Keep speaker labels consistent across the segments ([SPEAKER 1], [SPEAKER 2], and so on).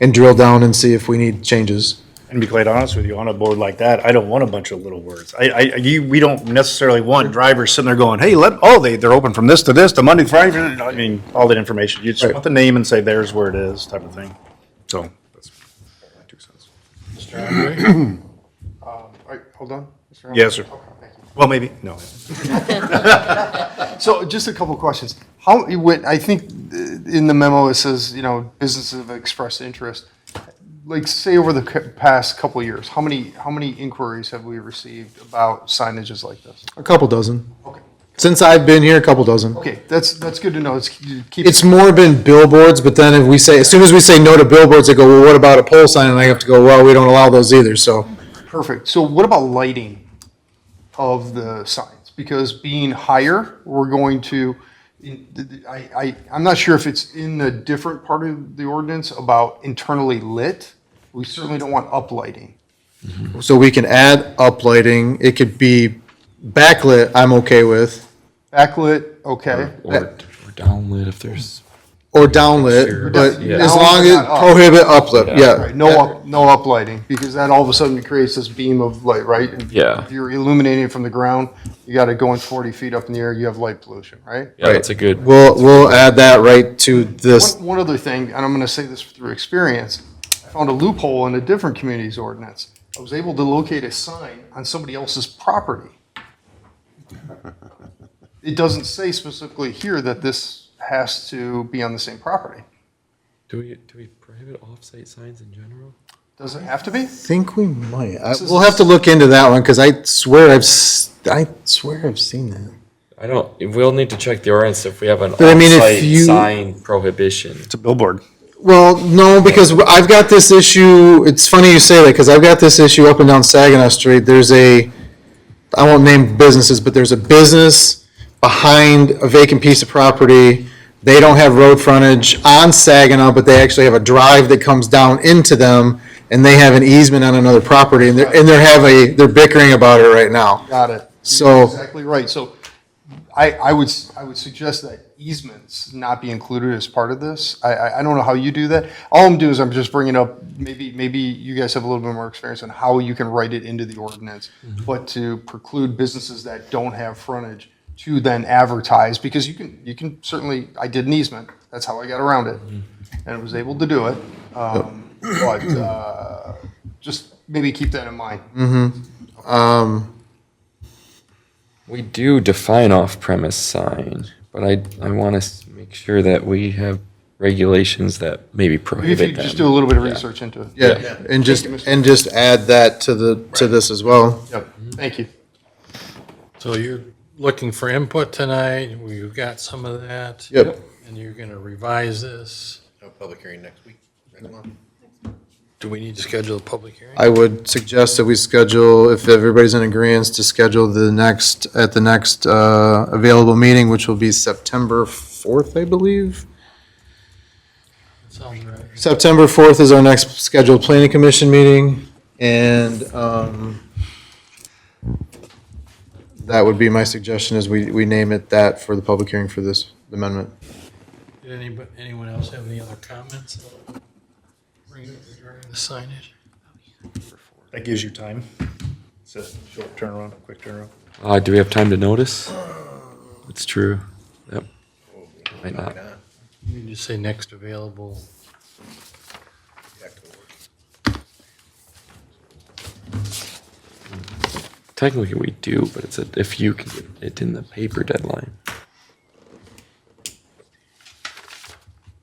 [SPEAKER 1] and drill down and see if we need changes.
[SPEAKER 2] And to be quite honest with you, on a board like that, I don't want a bunch of little words. I, I, you, we don't necessarily want drivers sitting there going, hey, let, oh, they, they're open from this to this to Monday, Friday. I mean, all that information. You just
[SPEAKER 1] Right.
[SPEAKER 2] want the name and say, there's where it is, type of thing. So. that's my two cents.
[SPEAKER 3] Mr. Andre? Um, Wait, hold on. Mr. Andre?
[SPEAKER 2] Yes, sir.
[SPEAKER 3] Okay, thank you.
[SPEAKER 2] Well, maybe, no.
[SPEAKER 3] So just a couple of questions. How, you went- I think uh, in the memo, it says, you know, businesses have expressed interest. Like, say over the c- past couple of years, how many, how many inquiries have we received about signages like this?
[SPEAKER 1] A couple dozen.
[SPEAKER 3] Okay.
[SPEAKER 1] Since I've been here, a couple dozen.
[SPEAKER 3] Okay, that's, that's good to know. It's, you keep.
[SPEAKER 1] It's more been billboards, but then if we say, as soon as we say no to billboards, they go, well, what about a pole sign? And I have to go, well, we don't allow those either, so.
[SPEAKER 3] Perfect. So what about lighting of the signs? Because being higher, we're going to, I, I, I'm not sure if it's in a different part of the ordinance about internally lit. We certainly don't want uplighting.
[SPEAKER 1] So we can add uplighting, it could be backlit, I'm okay with,
[SPEAKER 3] Backlit, okay.
[SPEAKER 4] or, or downlit if there's
[SPEAKER 1] or downlit, but
[SPEAKER 3] Yeah.
[SPEAKER 1] as long as
[SPEAKER 3] Downlit, not up.
[SPEAKER 1] prohibit uplight, yeah.
[SPEAKER 3] Right, no up, no uplighting, because that all of a sudden creates this beam of light, right? If-
[SPEAKER 4] Yeah.
[SPEAKER 3] If you're illuminating it from the ground, you gotta go in forty feet up in the air, you have light pollution, right?
[SPEAKER 4] yeah that's a good
[SPEAKER 1] We'll, we'll add that right to this,
[SPEAKER 3] One, one other thing, and I'm going to say this through experience, I found a loophole in a different community's ordinance. I was able to locate a sign on somebody else's property. It doesn't say specifically here that this has to be on the same property.
[SPEAKER 4] do we do we prohibit off-site signs in general
[SPEAKER 3] Does it have to be?
[SPEAKER 1] think we might, I-
[SPEAKER 3] is-
[SPEAKER 1] we'll have to look into that one, because I swear I've, s- I swear I've seen that.
[SPEAKER 4] i don't we'll need to check the ordinance if we have an
[SPEAKER 1] But I mean, if
[SPEAKER 4] off-site
[SPEAKER 1] you-
[SPEAKER 4] sign prohibition
[SPEAKER 2] It's a billboard.
[SPEAKER 1] Well, no, because I've got this issue, it's funny you say that, because I've got this issue up and down Saginaw Street, there's a, I won't name businesses, but there's a business behind a vacant piece of property, they don't have road frontage on Saginaw, but they actually have a drive that comes down into them, and they have an easement on another property, and they're, and they're have a, they're bickering about it right now.
[SPEAKER 3] Got it.
[SPEAKER 1] So-
[SPEAKER 3] You're Exactly right. So I, I would, s- I would suggest that easements not be included as part of this. I, I, I don't know how you do that. All I'm doing is I'm just bringing up, maybe, maybe you guys have a little bit more experience on how you can write it into the ordinance. But to preclude businesses that don't have frontage to then advertise, because you can, you can certainly, I did an easement. That's how I got around it. And I was able to do it. Um, But, uh, just maybe keep that in mind.
[SPEAKER 1] Um,
[SPEAKER 4] we do define off-premise sign but i i want to make sure that we have regulations that maybe prohibit
[SPEAKER 3] If you
[SPEAKER 4] them.
[SPEAKER 3] just do a little bit of research into it.
[SPEAKER 1] Yeah, and just, and just add that to the, to this as well.
[SPEAKER 3] Yep, thank you.
[SPEAKER 5] So you're looking for input tonight, you got some of that?
[SPEAKER 1] Yep.
[SPEAKER 5] And you're gonna revise this?
[SPEAKER 6] No public hearing next week, next month.
[SPEAKER 5] Do we need to schedule a public hearing?
[SPEAKER 1] I would suggest that we schedule, if everybody's in agreement, to schedule the next, at the next uh, available meeting, which will be September 4th, I believe.
[SPEAKER 5] Sounds right.
[SPEAKER 1] September 4th is our next scheduled planning commission meeting, and um, that would be my suggestion, is we, we name it that for the public hearing for this amendment.
[SPEAKER 5] Did anybody, anyone else have any other comments? Regarding the signage?
[SPEAKER 2] That gives you time. It's a short turnaround, a quick turnaround.
[SPEAKER 4] uh, do we have time to notice it's true yep might not
[SPEAKER 5] You just say next available.
[SPEAKER 4] technically we do but it's a, if you can get it in the paper deadline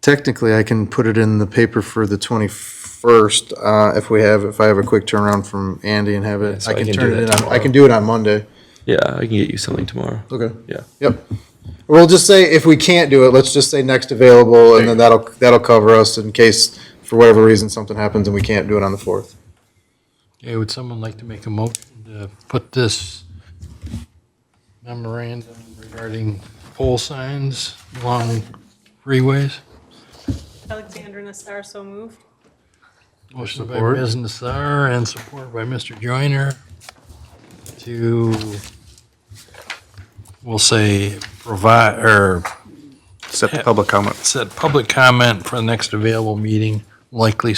[SPEAKER 1] Technically, I can put it in the paper for the 21st, uh, if we have, if I have a quick turnaround from Andy and have
[SPEAKER 4] Yeah,
[SPEAKER 1] it,
[SPEAKER 4] so
[SPEAKER 1] I
[SPEAKER 4] I
[SPEAKER 1] can
[SPEAKER 4] can do
[SPEAKER 1] turn it
[SPEAKER 4] that
[SPEAKER 1] in, on- I
[SPEAKER 4] tomorrow.
[SPEAKER 1] can do it on Monday.
[SPEAKER 4] yeah i can get you something tomorrow
[SPEAKER 1] Okay.
[SPEAKER 4] yeah
[SPEAKER 1] Yep. We'll just say, if we can't do it, let's just say next available, and then that'll, that'll cover us in case, for whatever reason, something happens and we can't do it on the fourth.
[SPEAKER 5] Okay, would someone like to make a motion to put this memorandum regarding pole signs along freeways?
[SPEAKER 7] Alexander Nassar, so moved.
[SPEAKER 5] Motion by Ms. Nassar and support by Mr. Joyner to, we'll say, provide, or
[SPEAKER 2] Set the public comment.
[SPEAKER 5] set public comment for the next available meeting, likely